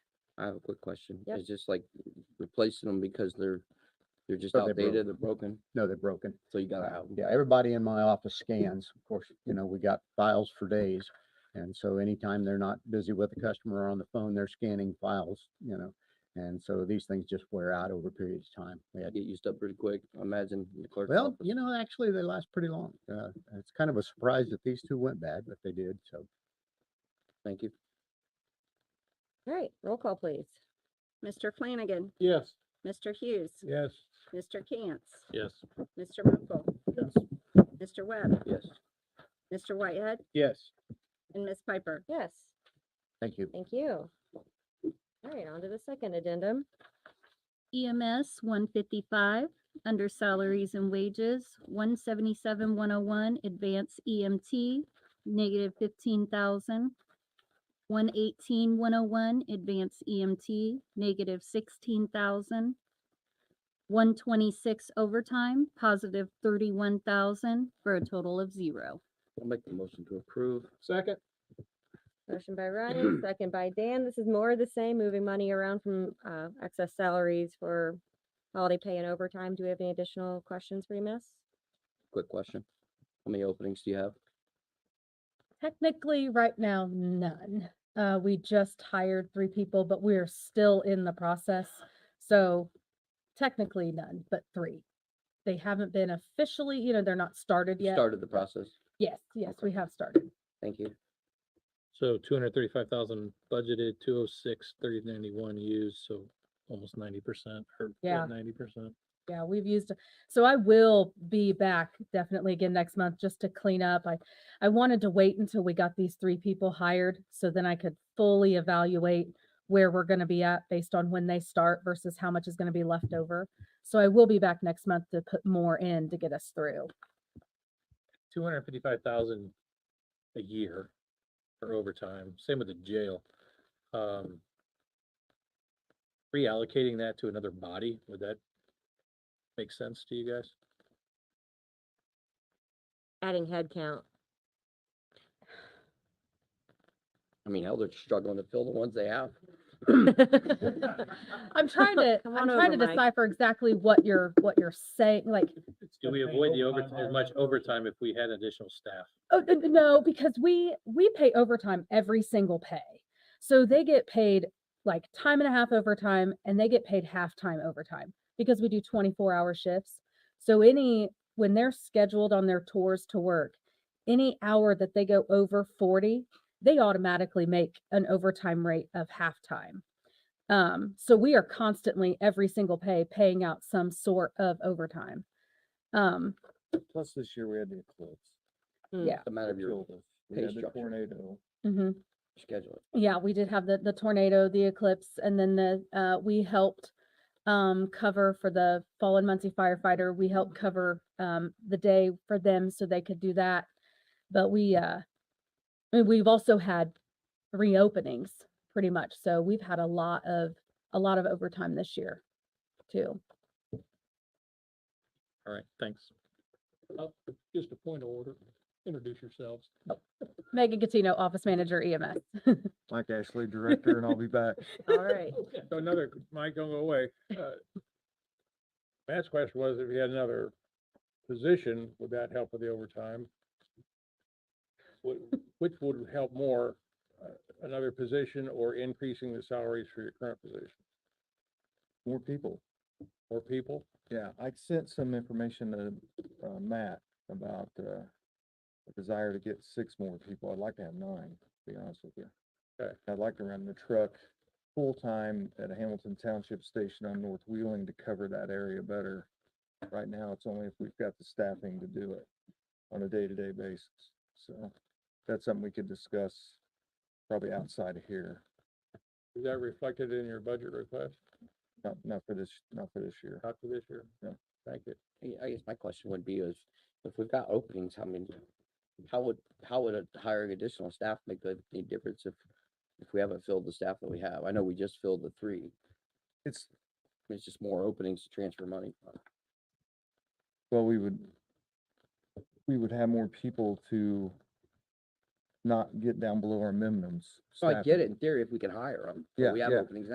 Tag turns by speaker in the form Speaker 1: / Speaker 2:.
Speaker 1: I have a quick question.
Speaker 2: Yep.
Speaker 1: It's just like replacing them because they're, they're just
Speaker 3: Because they're
Speaker 1: outdated, they're broken,
Speaker 3: No, they're broken.
Speaker 1: so you gotta
Speaker 3: Uh,
Speaker 1: have 'em.
Speaker 3: Yeah, everybody in my office scans. Of course, you know, we got files for days. And so anytime they're not busy with a customer or on the phone, they're scanning files, you know. And so these things just wear out over periods of time. We
Speaker 1: I
Speaker 3: had-
Speaker 1: get used up pretty quick, I imagine. in the clerk's
Speaker 3: Well,
Speaker 1: office.
Speaker 3: you know, actually, they last pretty long. Uh, it's kind of a surprise that these two went bad, but they did, so.
Speaker 1: Thank you.
Speaker 2: All right, roll call, please.
Speaker 4: Mr. Flanagan,
Speaker 5: Yes.
Speaker 4: Mr. Hughes,
Speaker 5: Yes.
Speaker 4: Mr. Cantz,
Speaker 5: Yes.
Speaker 4: Mr. Mokel,
Speaker 5: Yes.
Speaker 4: Mr. Webb,
Speaker 1: Yes.
Speaker 4: Mr. Whitehead,
Speaker 5: Yes.
Speaker 4: and Ms. Piper.
Speaker 2: Yes,
Speaker 3: Thank you.
Speaker 2: thank you. All right, on to the second addendum.
Speaker 6: EMS E one fifty-five, under salaries and wages, one seventy-seven, one oh one, advanced E EMT, negative fifteen thousand. One eighteen, one oh one, advanced EMT, negative sixteen thousand. One twenty-six overtime, positive thirty-one thousand, for a total of zero.
Speaker 1: I'll make the motion to approve.
Speaker 5: Second?
Speaker 2: Motion by Ryan, second by Dan. This is more of the same, moving money around from uh, excess salaries for holiday pay and overtime. Do we have any additional questions for you, miss?
Speaker 1: Quick question. How many openings do you have?
Speaker 7: Technically, right now, none. Uh, we just hired three people, but we're still in the process. So technically none, but three. They haven't been officially, you know, they're not started yet.
Speaker 1: Started the process.
Speaker 7: Yes, yes, we have started.
Speaker 1: Thank you.
Speaker 5: So two hundred thirty-five thousand budgeted, two oh six, thirty ninety-one used, so almost ninety percent or
Speaker 7: Yeah.
Speaker 5: ninety percent.
Speaker 7: Yeah, we've used, so I will be back definitely again next month just to clean up. I, I wanted to wait until we got these three people hired so then I could fully evaluate where we're gonna be at based on when they start versus how much is gonna be left over. So I will be back next month to put more in to get us through.
Speaker 5: Two hundred fifty-five thousand a year for overtime, same with the jail. Um Reallocating that to another body, would that make sense to you guys?
Speaker 2: Adding headcount.
Speaker 1: I mean, hell, they're struggling to fill the ones they have.
Speaker 7: I'm trying to,
Speaker 4: Come
Speaker 7: I'm
Speaker 4: on
Speaker 7: trying
Speaker 4: over,
Speaker 7: to
Speaker 4: Mike.
Speaker 7: decipher exactly what you're, what you're saying, like,
Speaker 5: Do we
Speaker 8: oh,
Speaker 5: avoid the overtime, as much overtime if we had additional staff?
Speaker 7: Oh, n- n- no, because we, we pay overtime every single pay. So they get paid like time and a half overtime and they get paid halftime overtime because we do twenty-four hour shifts. So any, when they're scheduled on their tours to work, any hour that they go over forty, they automatically make an overtime rate of halftime. Um, so we are constantly, every single pay, paying out some sort of overtime. Um,
Speaker 8: Plus this year we had the eclipse.
Speaker 1: It's a matter of
Speaker 8: that
Speaker 1: your
Speaker 8: killed us.
Speaker 1: pay
Speaker 8: We had the
Speaker 1: structure.
Speaker 8: tornado.
Speaker 7: mhm.
Speaker 1: schedule.
Speaker 7: Yeah, we did have the, the tornado, the eclipse, and then the, uh, we helped, um, cover for the fallen Muncie firefighter. We helped cover, um, the day for them so they could do that. But we, uh, I mean, we've also had reopenings pretty much. So we've had a lot of, a lot of overtime this year too.
Speaker 5: All right, thanks.
Speaker 9: Uh, Just a point of order, introduce yourselves.
Speaker 7: Megan Catino, Office Manager E EMS.
Speaker 8: Mike Ashley, director, and I'll be back.
Speaker 2: All right,
Speaker 9: So Another, Mike, don't go away. Uh, Matt's question was if you had another position, would that help with the overtime? What, which would help more, uh, another position or increasing the salaries for your current position?
Speaker 8: More people.
Speaker 9: More people?
Speaker 8: Yeah, I sent some information to, uh, Matt about, uh, a desire to get six more people. I'd like to have nine, to be honest with you.
Speaker 9: Okay.
Speaker 8: I'd like to run the truck full-time at Hamilton Township Station on North Wheeling to cover that area better. Right now, it's only if we've got the staffing to do it on a day-to-day basis. So that's something we could discuss probably outside of here,
Speaker 9: Is that reflected in your budget request?
Speaker 8: not, not for this, not for this year.
Speaker 9: Not for this year?
Speaker 8: No.
Speaker 9: Thank you.
Speaker 1: I- I guess my question would be is, if we've got openings, how many, how would, how would a- hiring additional staff make a- any difference if, if we haven't filled the staff that we have? I know we just filled the three.
Speaker 8: It's,
Speaker 1: It's just more openings to transfer money. from.
Speaker 8: Well, we would, we would have more people to not get down below our minimums.
Speaker 1: So I get
Speaker 8: staffing.
Speaker 1: Oh, it in theory if we can hire them.
Speaker 8: Yeah,
Speaker 1: We have
Speaker 8: yeah.
Speaker 1: openings